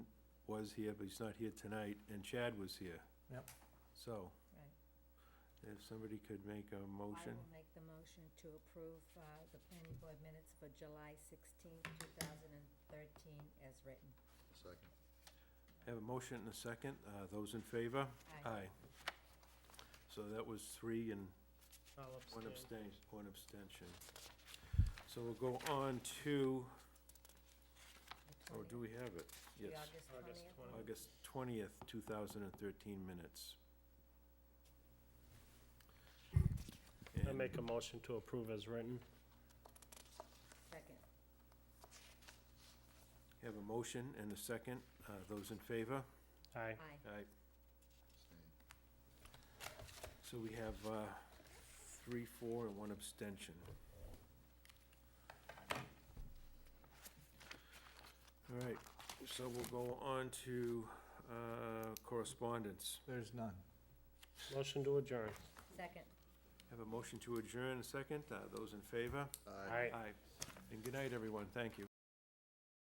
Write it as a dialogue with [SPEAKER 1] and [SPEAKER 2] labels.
[SPEAKER 1] was here, but he's not here tonight, and Chad was here.
[SPEAKER 2] Yep.
[SPEAKER 1] So,
[SPEAKER 3] Right.
[SPEAKER 1] if somebody could make a
[SPEAKER 3] I
[SPEAKER 1] motion,
[SPEAKER 3] will make the motion to approve uh, the planning board minutes for July 16, 2013, as written.
[SPEAKER 4] Second.
[SPEAKER 1] have a motion and a second, uh, those in favor?
[SPEAKER 3] Aye.
[SPEAKER 1] So that was three and
[SPEAKER 2] I'll
[SPEAKER 1] One
[SPEAKER 2] abstain.
[SPEAKER 1] abstain, one abstention. So we'll go on to,
[SPEAKER 3] The
[SPEAKER 1] oh, do
[SPEAKER 3] 20th,
[SPEAKER 1] we have it?
[SPEAKER 3] the
[SPEAKER 1] Yes,
[SPEAKER 2] August
[SPEAKER 3] August 20th.
[SPEAKER 2] 20th.
[SPEAKER 1] August twentieth, two thousand and thirteen minutes.
[SPEAKER 2] I
[SPEAKER 1] And
[SPEAKER 2] make a motion to approve as written.
[SPEAKER 3] Second.
[SPEAKER 1] Have a motion and a second. Uh, those in favor?
[SPEAKER 2] Aye.
[SPEAKER 3] Aye.
[SPEAKER 1] Aye.
[SPEAKER 4] Abstain.
[SPEAKER 1] So we have, uh, three, four, and one abstention. All right, so we'll go on to, uh, correspondence.
[SPEAKER 5] There's none.
[SPEAKER 2] Motion to adjourn.
[SPEAKER 3] Second.
[SPEAKER 1] Have a motion to adjourn, a second. Uh, Those in favor?
[SPEAKER 4] Aye.
[SPEAKER 2] Aye.
[SPEAKER 1] Aye. And good night, everyone. Thank you.